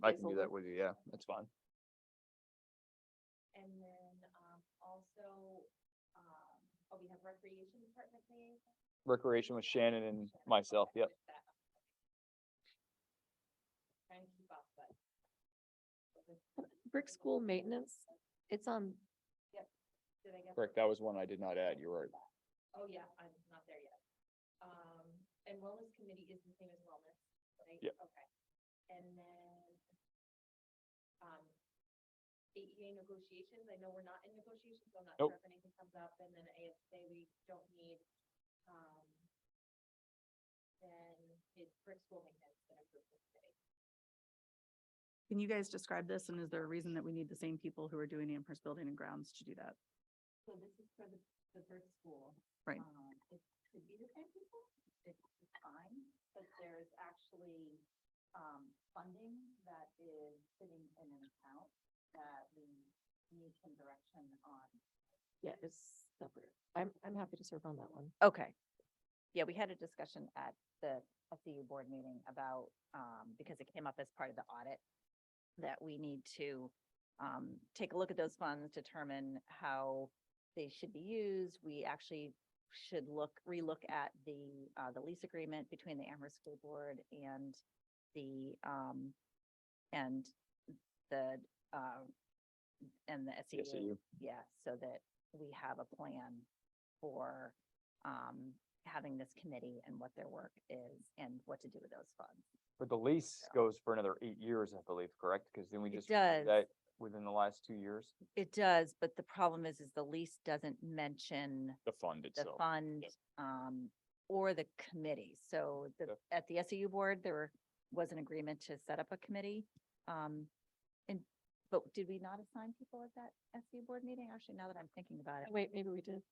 I can do easily. that with you. Yeah, that's fine. And then, um, also, um, oh, we have recreation department liaison. Recreation with Shannon and Shannon, myself. okay, Yep. with that. Trying to keep up, but. Brick school maintenance, it's on, Did I get? Correct. That was one I did not add. You're right. Oh, yeah, I'm not there yet. Um, and wellness committee is the same as wellness, right? Yep. Okay. And then, um, AEA negotiations, I know we're not in negotiations, so I'm not sure Nope. if anything comes up, and then ASA, we don't need, um, then it's brick school maintenance that approves this today. Can you guys describe this and is there a reason that we need the same people who are doing the Amherst Building and Grounds to do that? So this is for the, the brick school. Right. Um, It could be the same people, it's it's fine, but there's actually, um, funding that is sitting in an account that we need some direction on. yeah, it's separate. I'm, I'm happy to serve on that one. Okay. Yeah, we had a discussion at the SEU board meeting about, um, because it came up as part of the audit, that we need to, um, take a look at those funds, determine how they should be used. We actually should look, relook at the, uh, the lease agreement between the Amherst School Board and the, um, and the, um, and the E Yes, SEU you. yeah, so that we have a plan for um having this committee and what their work is and what to do with those funds. But the lease goes for another eight years, I believe, correct? Because then we It just. renewed does. that Within the last two years. It does, but the problem is, is the lease doesn't mention The fund the fund um or the committee. So the, Yep. at the SEU board, there were- was an agreement to set up a committee. Um, and, but did we not assign people at that SEU board meeting? Actually, now that I'm thinking about it, Wait, maybe we did.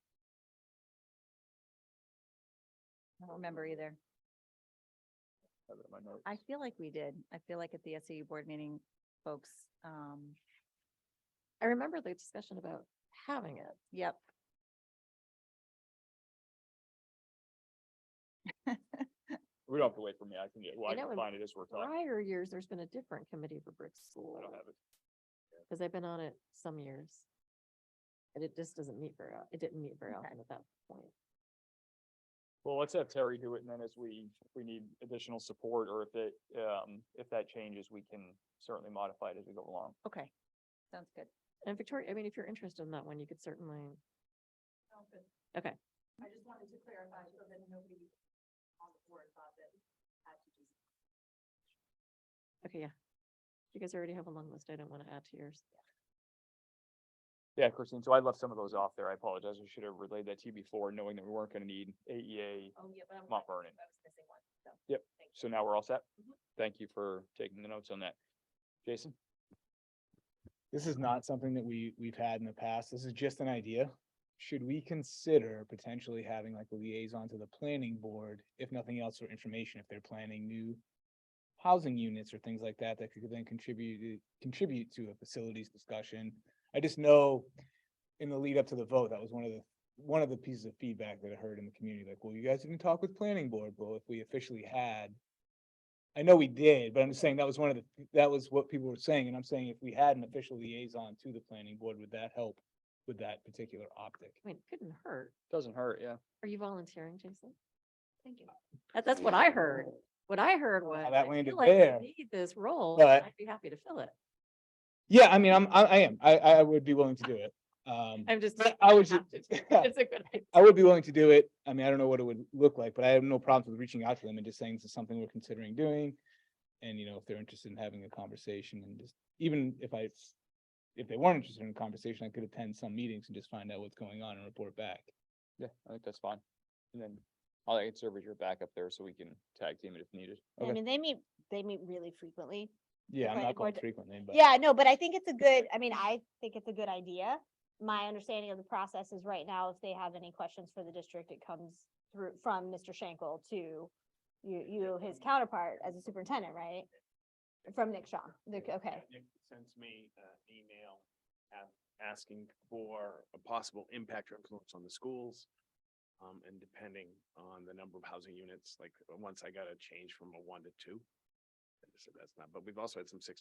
I don't remember either. Have it in my notes. I feel like we did. I feel like at the SAU board meeting, folks, um, I remember the discussion about having it. yep. We don't have to wait for me. I can get, well, I I know, can and find it as we're talking. Prior years, there's been a different committee for brick school, I don't have it. because I've been on it some years. And it just doesn't meet very, o- it didn't meet very Okay. often at that point. Well, let's have Terry do it and then as we, if we need additional support or if it, um, if that changes, we can certainly modify it as we go along. Okay. Sounds good. And Victoria, I mean, if you're interested in that one, you could certainly, Okay. I just wanted to clarify so that nobody on the board thought that had to do. okay, yeah. You guys already have a long list. I don't want to add to yours. Yeah, Christine, so I left some of those off there. I apologize. I should have relayed that to you before, knowing that we weren't gonna need E AEA. Oh, yeah, but I'm. Mount glad- Vernon. I was missing one, so. Yep. thank you. So now we're all set? Mhm. Thank you for taking the notes on that. Jason? This is not something that we, we've had in the past. This is just an idea. Should we consider potentially having like a liaison to the planning board, if nothing else, for information, if they're planning new housing units or things like that, that could then contribute, eh, contribute to a facilities discussion? I just know in the lead up to the vote, that was one of the, one of the pieces of feedback that I heard in the community, like, well, you guys didn't talk with planning board, well, if we officially had I know we did, but I'm just saying that was one of the, that was what people were saying, and I'm saying if we had an official liaison to the planning board, would that help with that particular optic? I mean, it couldn't hurt. Doesn't hurt, yeah. Are you volunteering, Jason? Thank you. That, that's what I heard. What I heard was. that I landed feel like we there, Need this role, and but- I'd be happy to fill it. Yeah, I mean, I'm, I, I am, I, I would be willing to do it. Um, I'm just. but I would have to ju- do it. It's a good idea. I would be willing to do it. I mean, I don't know what it would look like, but I have no problems with reaching out to them and just saying this is something we're considering doing. And, you know, if they're interested in having a conversation and just, even if I, if they weren't interested in a conversation, I could attend some meetings and just find out what's going on and report back. Yeah, I think that's fine. And then I'll, I can serve as your backup there so we can tag team it if needed. I Okay. mean, they meet, they meet really frequently. Yeah, I'm Right, not going Gord- frequently, but. Yeah, no, but I think it's a good, I mean, I think it's a good idea. My understanding of the process is right now, if they have any questions for the district, it comes through from Mr. Schenkel to you, you, his counterpart as a superintendent, right? From Nick Shaw. Nick- Okay, Nick sends me an email a- asking for a possible impact or influence on the schools. Um, and depending on the number of housing units, like, uh, once I got a change from a one to two. and So that's not, but we've also had some sixty